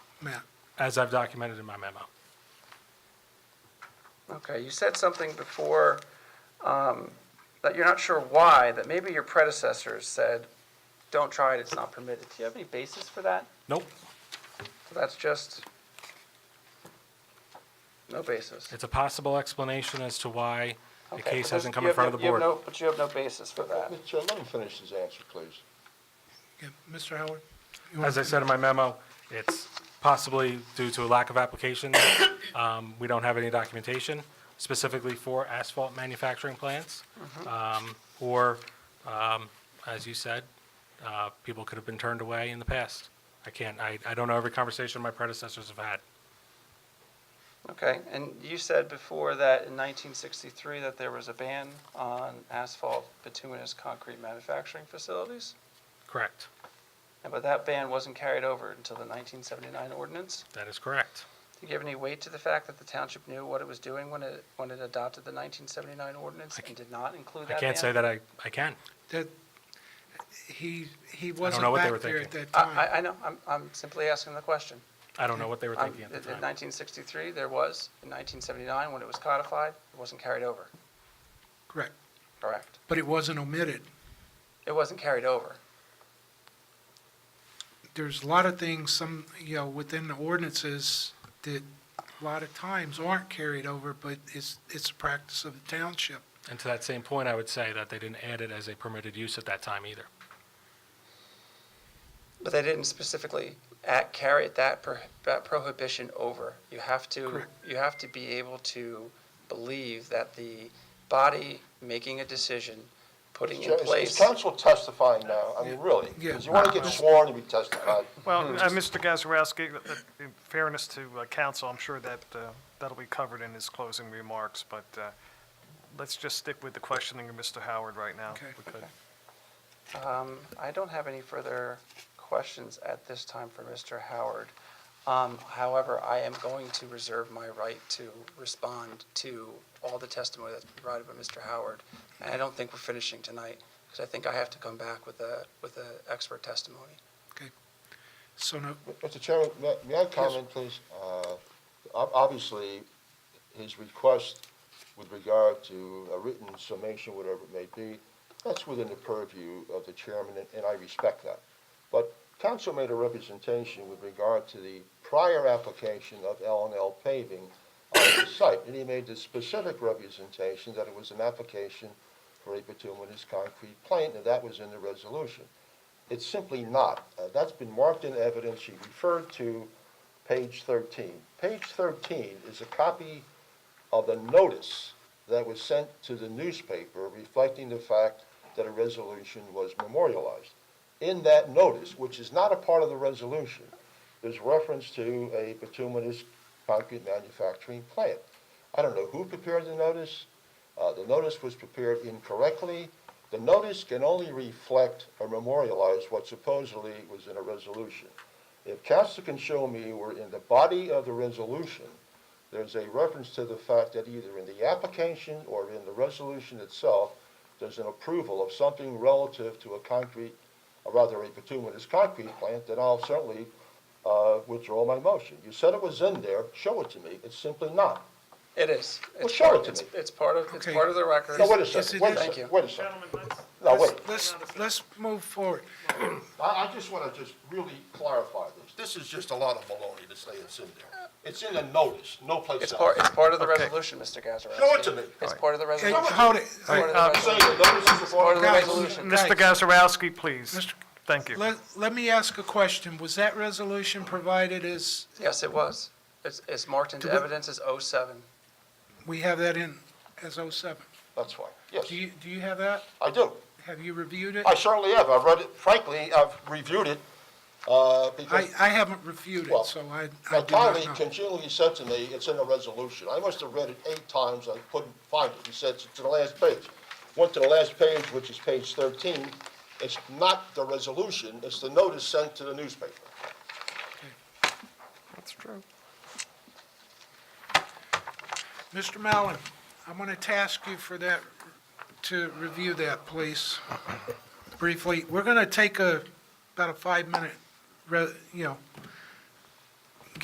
Matt. as I've documented in my memo. Okay, you said something before um, that you're not sure why, that maybe your predecessors said, don't try it, it's not permitted. Do you have any basis for that? Nope, So that's just no basis. it's a possible explanation as to why the Okay, case but hasn't come in you have front no- of the you have board. no- But you have no basis for that. Mr. Chair, let him finish his answer, please. Yeah, Mr. Howard? you want- As I said in my memo, it's possibly due to a lack of application. Um, We don't have any documentation specifically for asphalt manufacturing plants. Mm-hmm. Um, Or, um, as you said, uh, people could have been turned away in the past. I can't, I, I don't know every conversation my predecessors have had. Okay, and you said before that in 1963 that there was a ban on asphalt bituminous concrete manufacturing facilities? Correct. And But that ban wasn't carried over until the 1979 ordinance? That is correct. Do you give any weight to the fact that the township knew what it was doing when it, when it adopted the 1979 ordinance and did not include I that can't say ban? that I, I can. That, he, he wasn't know what they were back there at thinking. that I, time. I- I know, I'm, I'm simply asking the question. I don't know what they were I'm- thinking at In the in time. 1963, there was, in 1979, when it was codified, it wasn't carried over, Correct. correct? But it wasn't omitted. It wasn't carried over. There's a lot of things, some, you know, within the ordinances that a lot of times aren't carried over, but it's, it's a practice of the township. And to that same point, I would say that they didn't add it as a permitted use at that time either. But they didn't specifically at, carry that, pro- that prohibition over. You have to, Correct. you have to be able to believe that the body making a decision, putting Mr. in Chair, is- Is place. counsel testifying now? I mean, really? Because you want to get sworn to be testified. Hmm. Well, uh, Mr. Gazarovski, uh, in fairness to uh, counsel, I'm sure that, uh, that'll be covered in his closing remarks, but uh, let's just stick with the questioning of Mr. Howard right now. Okay. if we could. Um, I don't have any further questions at this time for Mr. Howard. Um, however, I am going to reserve my right to respond to all the testimony that's provided by Mr. Howard. And I don't think we're finishing tonight, because I think I have to come back with a, with a expert testimony. So no, Mr. Chairman, may- may I comment, please? Uh, ob- Obviously, his request with regard to a written summation, whatever it may be, that's within the purview of the chairman, and- and I respect that. But council made a representation with regard to the prior application of L and L paving on the site, and he made the specific representation that it was an application for a bituminous concrete plant, and that was in the resolution. It's simply not. Uh, That's been marked in evidence. She referred to page 13. Page 13 is a copy of the notice that was sent to the newspaper reflecting the fact that a resolution was memorialized. In that notice, which is not a part of the resolution, there's reference to a bituminous concrete manufacturing plant. I don't know who prepared the notice. Uh, The notice was prepared incorrectly. The notice can only reflect or memorialize what supposedly was in a resolution. If council can show me where in the body of the resolution, there's a reference to the fact that either in the application or in the resolution itself, there's an approval of something relative to a concrete, or rather a bituminous concrete plant, then I'll certainly uh, withdraw my motion. You said it was in there, show it to me. It's simply not. It is. Well, It's show part- it to it's- me. It's part of, it's Okay. part of the record. No, wait a Yes, second, it wait a is. Thank you. second, wait a second. No, wait. let's, let's move forward. I, I just want to just really clarify this. This is just a lot of baloney to say it's in there. It's in the notice, no place else. It's part, it's part of the resolution, Mr. Gazarovski. Show it to me. It's part of the Hey, resolution. Hold it. It's part of the uh, Say resolution. the notice is a Part of the Guys, resolution. Mr. guys, Gazarovski, please. Mr. Thank you. Let, let me ask a question. Was that resolution provided as, Yes, it was. It's, it's marked into Do we- evidence as 07. we have that in as 07? That's fine, yes, Do you, do you have that? I do. Have you reviewed it? I certainly have. I've read it, frankly, I've reviewed it, uh, I, because I haven't reviewed Well, it, so I, I my do not colleague know. continually said to me, it's in the resolution. I must have read it eight times, I couldn't find it. He said, it's to the last page. Went to the last page, which is page 13. It's not the resolution, it's the notice sent to the newspaper. That's true. Mr. Mallon, I'm going to task you for that, to review that, please, briefly. We're going to take a, about a five-minute, re- you know,